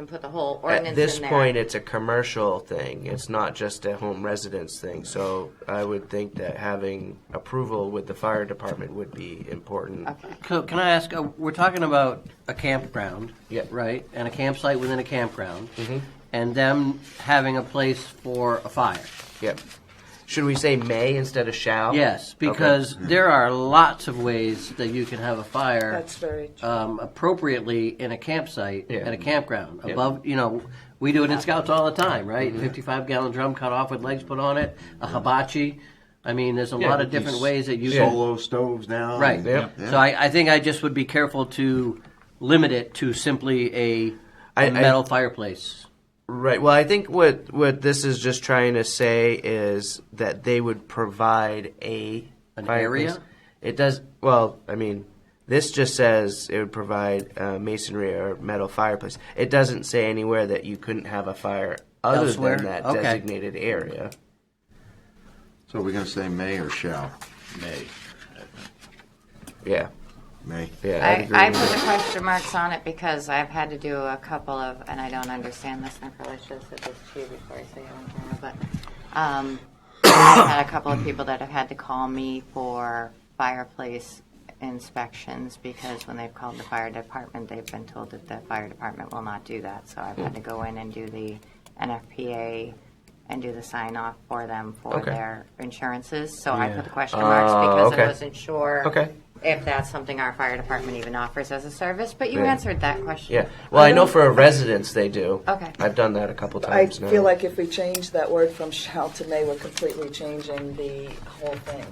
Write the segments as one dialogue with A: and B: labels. A: and put the whole ordinance
B: At this
A: in there.
B: point, it's a commercial thing. It's not just a home residence thing. So I would think that having approval with the fire department would be important.
C: So can I ask? Uh, we're talking about a campground,
B: Yeah.
C: right? And a campsite within a campground,
B: Mm-hmm.
C: and them having a place for a fire.
B: Yep. Should we say may instead of shall?
C: Yes,
B: Okay.
C: because there are lots of ways that you can have a fire
D: That's very true.
C: um, appropriately in a campsite
B: Yeah.
C: at a campground.
B: Yeah. Mm-hmm.
C: Above, you know, we do it in scouts all the time, right? Fifty-five gallon drum cut off with legs put on it, a hibachi. I mean, there's a
B: Yeah,
C: lot of
B: these
C: different ways that you can
E: Solo stoves now.
C: Right.
B: Yep.
C: So I, I think I just would be careful to limit it to simply a
B: I-
C: a metal fireplace.
B: Right. Well, I think what what this is just trying to say is that they would provide a
C: An
B: fireplace.
C: area?
B: It does. Well, I mean, this just says it would provide uh, masonry or metal fireplace. It doesn't say anywhere that you couldn't have a fire other
C: Elsewhere?
B: than that
C: Okay.
B: designated area.
E: So we're gonna say may or shall?
F: May.
B: Yeah.
E: May.
B: Yeah. I'd
A: I,
B: agree
A: I
B: with
A: put
B: that.
A: the question marks on it because I've had to do a couple of, and I don't understand this, and I probably should have said this to you before I say it on camera, but um, I've had a couple of people that have had to call me for fireplace inspections because when they've called the fire department, they've been told that the fire department will not do that. So I've had to go in and do the NFPA and do the sign off for them for
B: Okay.
A: their insurances. So I
C: Yeah.
A: put the question marks
B: Oh,
A: because
B: okay.
A: I wasn't sure
B: Okay.
A: if that's something our fire department even offers as a service, but you
B: Yeah.
A: answered that question.
B: Yeah. Well, I know for a residence they do.
A: Okay.
B: I've done that a couple
D: Um, I
B: times now.
D: feel like if we change that word from shall to may, we're completely changing the whole thing.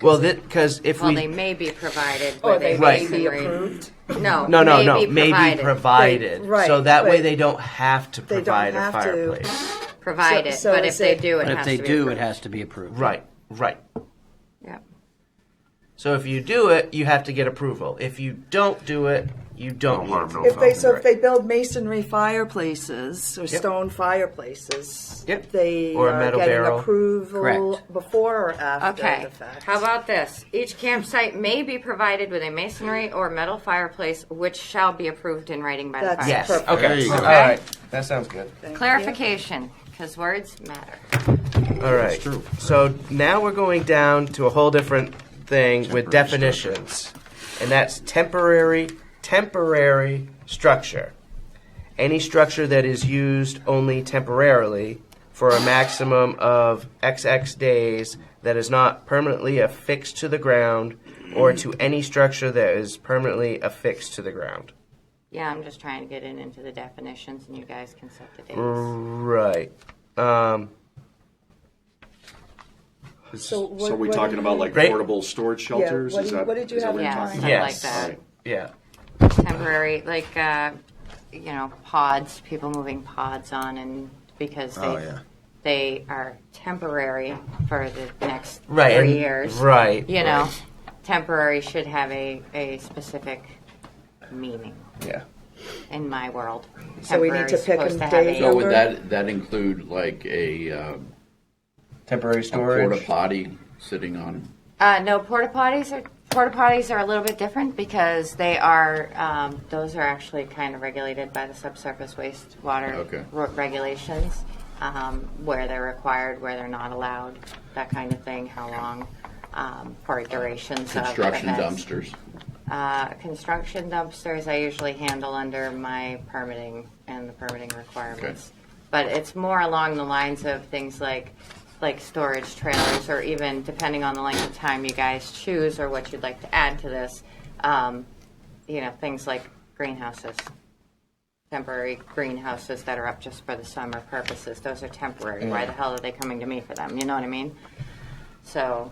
B: well, because if
A: Well,
B: we
A: they may be provided with
D: Or
A: a
D: Oh, they may
B: Right.
D: be
A: masonry-
D: approved.
A: No,
B: No, no, no.
A: May be
B: May be
A: provided.
B: provided.
D: Right,
B: So that way
D: right.
B: they don't have to
D: don't
B: provide a
D: have to.
B: fireplace.
A: provided,
D: So- so
A: but if
D: is
A: they
D: it-
A: do, it
C: But if
A: has
C: they
A: to be
C: do, it
A: approved.
C: has to be approved.
B: Right, right.
A: Yep.
B: So if you do it, you have to get approval. If you don't do it, you don't.
F: Don't let 'em
B: get
F: know
D: If they, so if
B: Right.
D: they build masonry fireplaces or stone fireplaces,
B: Yep.
D: they
B: Or a
D: are
B: metal
D: getting
B: barrel.
D: approval
C: Correct.
D: before or after
A: Okay.
D: the fact.
A: How about this? Each campsite may be provided with a masonry or metal fireplace, which shall be approved in writing by
D: That's
A: the fire.
B: Yes.
D: Perfect.
B: Okay.
F: There you go.
B: All right. That sounds good.
A: Clarification, because words matter.
B: All right.
F: true.
B: So now we're going down to a whole different thing with
F: Temporary
B: definitions, and that's temporary temporary structure. Any structure that is used only temporarily for a maximum of XX days that is not permanently affixed to the ground or to any structure that is permanently affixed to the ground.
A: Yeah, I'm just trying to get it into the definitions, and you guys can set the dates.
B: Mm. Right. Um,
D: So what-
G: So are we
D: what
G: talking
D: did
G: about
D: you-
G: like
B: Right.
G: portable storage shelters?
D: what
G: Is
D: do-
G: that-
D: what did you
G: is that
D: have in
G: you're
A: Yeah,
G: talking
A: something
G: about?
B: yes.
A: like that.
B: Yeah.
A: temporary, like uh, you know, pods. People moving pods on, and because they
E: Oh, yeah.
A: they are temporary for the next
B: Right.
A: three
B: and-
A: years.
B: Right.
A: You know, temporary should have a a specific meaning
B: Yeah.
A: in my world.
D: So we need to
A: Temporary's
D: pick
A: supposed
D: a
A: to have
D: date
F: So
A: a-
F: would that, that include like a um,
B: Temporary
F: a porta
B: storage.
F: potty sitting on?
A: Uh, no, porta potties are porta potties are a little bit different because they are um, those are actually kind of regulated by the subsurface wastewater
F: Okay.
A: re- regulations, um, where they're required, where they're not allowed, that kind of thing. How long? Um, for durations
F: Construction
A: of events.
F: dumpsters.
A: Uh, construction dumpsters I usually handle under my permitting and the permitting requirements. But it's more along the lines of things like, like storage trailers, or even depending on the length of time you guys choose or what you'd like to add to this, um, you know, things like greenhouses. Temporary greenhouses that are up just for the summer purposes, those are temporary. Why the hell are they coming to me for them? You know what I mean? So,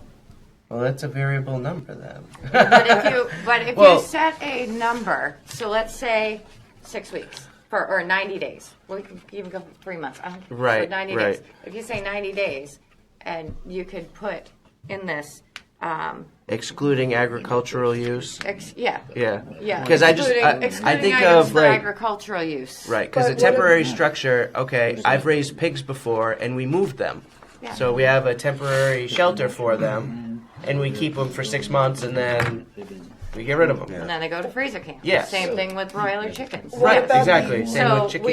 B: Well, that's a variable number then.
A: but if you but if
B: Well-
A: you set a number, so let's say six weeks for or ninety days. We can even go for three months. I don't care.
B: Right,
A: So ninety
B: right.
A: days. If you say ninety days, and you could put in this, um,
B: Excluding agricultural use.
A: ex, yeah,
B: Yeah.
A: yeah.
B: Because I just
A: excluding,
B: I, I
A: excluding
B: think
A: items
B: of
A: for
B: like
A: agricultural use.
B: right because
D: But
B: a
D: what if-
B: temporary structure. Okay, I've raised pigs before and we moved them,
A: Yeah.
B: so we have a temporary shelter for them, and we keep them for six months and then we get rid of them.
A: And then they go to freezer camp.
B: Yes.
A: Same thing with broiler chickens.
B: Right.
D: about the-
B: Exactly. Same
A: So
B: with
A: we
B: chickens.